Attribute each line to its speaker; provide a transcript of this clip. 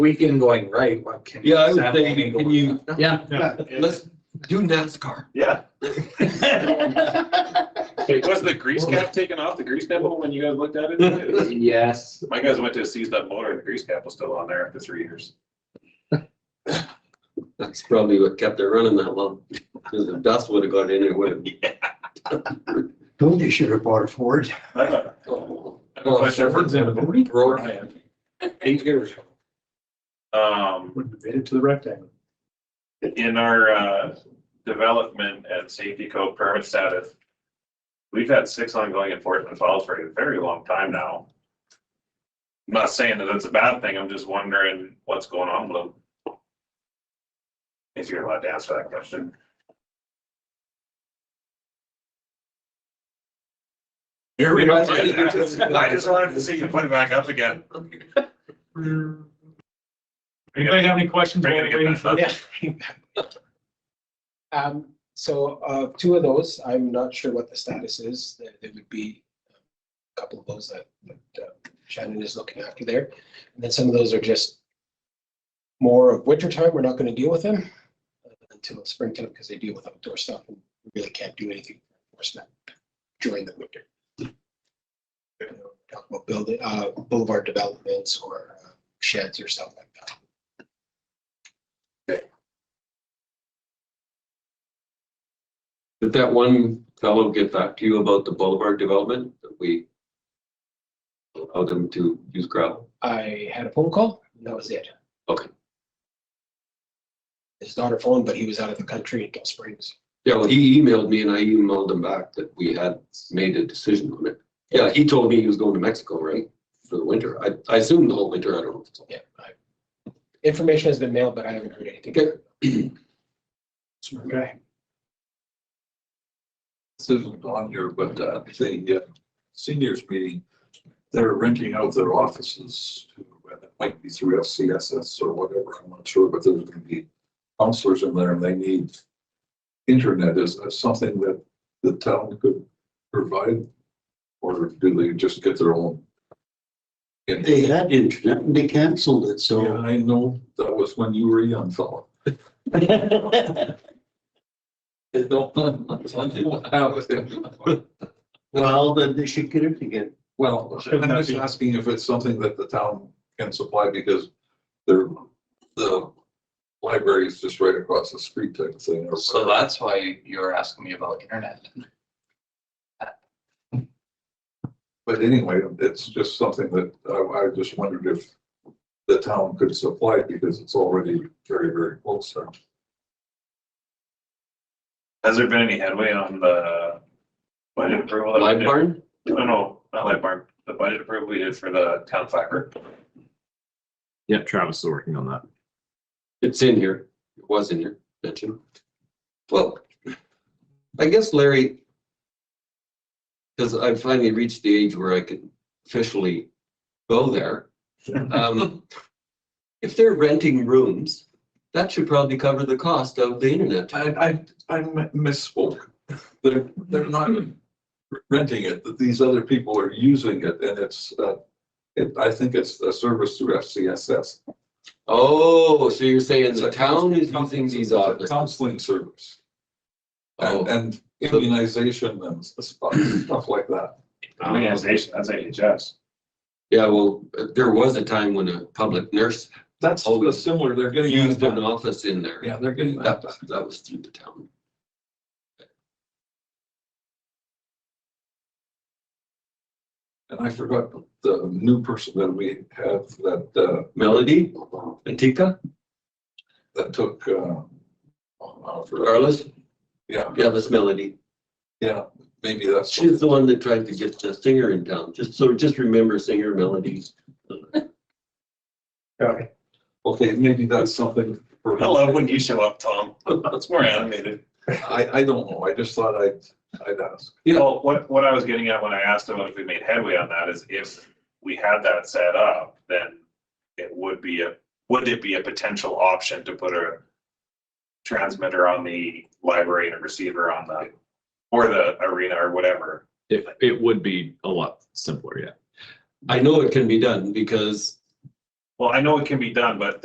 Speaker 1: Weekend going right, what can?
Speaker 2: Yeah, I would say, can you,
Speaker 3: Yeah.
Speaker 2: let's do NASCAR.
Speaker 4: Yeah.
Speaker 5: Hey, was the grease cap taken off, the grease nipple when you guys looked at it?
Speaker 3: Yes.
Speaker 5: My guys went to seize that motor and the grease cap was still on there after three years.
Speaker 2: That's probably what kept it running that long, because if dust would have got in, it would
Speaker 4: Told you should have bought a Ford.
Speaker 5: I don't know.
Speaker 2: have.
Speaker 5: I don't know if I should-
Speaker 2: Road, eight years.
Speaker 5: Um,
Speaker 1: Would have it to the rectangle.
Speaker 5: in our, uh, development and safety code permit status, we've had six ongoing enforcement files for a very long time now. I'm not saying that it's a bad thing, I'm just wondering what's going on with them. If you're allowed to answer that question.
Speaker 2: Here
Speaker 5: I just wanted to see you put it back up again.
Speaker 6: Anybody have any questions?
Speaker 5: Bring it again.
Speaker 6: Yeah.
Speaker 7: Um, so, uh, two of those, I'm not sure what the status is. There, there would be a couple of those that, that uh, Shannon is looking after there. And then some of those are just more of winter time. We're not gonna deal with them uh, until springtime because they deal with outdoor stuff and we really can't do anything for enforcement during the winter. You know, Talk about building, uh, boulevard developments or uh, sheds or stuff like that.
Speaker 2: Did that one fellow get back to you about the boulevard development that we allowed them to use gravel?
Speaker 7: I had a phone call, and that was it.
Speaker 2: Okay.
Speaker 7: His daughter phoned, but he was out of the country in Gulf Springs.
Speaker 2: Yeah, well, he emailed me and I emailed him back that we had made a decision on it. Yeah, he told me he was going to Mexico, right, for the winter. I, I assumed the whole winter, I don't know.
Speaker 7: Yeah. I- Information has been mailed, but I haven't heard anything.
Speaker 2: Okay.
Speaker 7: Smart guy.
Speaker 8: This isn't on here, but uh, the uh, seniors meeting, they're renting out their offices to, and it might be through FCSS or whatever, I'm not sure, but there's gonna be counselors in there and they need internet. Is that something that the town could provide? Or do they just get their own? And-
Speaker 4: They had internet and they canceled it,
Speaker 8: Yeah,
Speaker 4: so.
Speaker 8: I know that was when you were a young fellow. They don't, they don't have it.
Speaker 4: Well, then they should get it again.
Speaker 8: Well,
Speaker 6: Shouldn't
Speaker 8: I'm
Speaker 6: that
Speaker 8: just
Speaker 6: be-
Speaker 8: asking if it's something that the town can supply because they're, the library is just right across the street type of thing. or-
Speaker 3: So that's why you were asking me about internet.
Speaker 8: But anyway, it's just something that I, I just wondered if the town could supply it because it's already very, very close there.
Speaker 5: Has there been any headway on the budget approval? that we
Speaker 2: Live
Speaker 5: did?
Speaker 2: barn?
Speaker 5: No, no, not live barn, the budget approval we did for the town fiber.
Speaker 9: Yep, Travis is working on that.
Speaker 2: It's in here. It was in here, mentioned. Well, I guess Larry, because I finally reached the age where I could officially go there. Um, If they're renting rooms, that should probably cover the cost of the internet.
Speaker 8: I, I, I misspoke. They're, they're not renting it, that these other people are using it and it's, uh, it, I think it's a service through FCSS.
Speaker 2: Oh, so you're saying the
Speaker 8: It's a
Speaker 2: town is
Speaker 8: counseling-
Speaker 2: using these
Speaker 8: it's a
Speaker 2: offices?
Speaker 8: Counseling service and,
Speaker 2: Oh,
Speaker 8: and immunization and s- stuff, stuff like that.
Speaker 5: Immunization, that's AHS.
Speaker 2: Yeah, well, there was a time when a public nurse
Speaker 8: That's
Speaker 2: Oh, we-
Speaker 8: similar, they're getting.
Speaker 2: used an office in there.
Speaker 8: Yeah, they're getting
Speaker 2: That,
Speaker 8: that.
Speaker 2: that was through the town.
Speaker 8: And I forgot the new person that we have that, uh,
Speaker 2: Melody, Antica,
Speaker 8: that took, uh, oh, I forgot.
Speaker 2: Carlos,
Speaker 8: yeah,
Speaker 2: yeah, that's Melody.
Speaker 8: yeah, maybe that's.
Speaker 2: She's the one that tried to get the singer in town, just so, just remember singer Melody.
Speaker 8: Okay, maybe that's something. for-
Speaker 5: I love when you show up, Tom. That's more animated.
Speaker 8: I, I don't know. I just thought I'd, I'd ask.
Speaker 5: You know, what, what I was getting at when I asked about if we made headway on that is if we had that set up, then it would be a, would it be a potential option to put a transmitter on the library and a receiver on the, or the arena or whatever?
Speaker 9: It, it would be a lot simpler, yeah.
Speaker 2: I know it can be done because
Speaker 5: Well, I know it can be done, but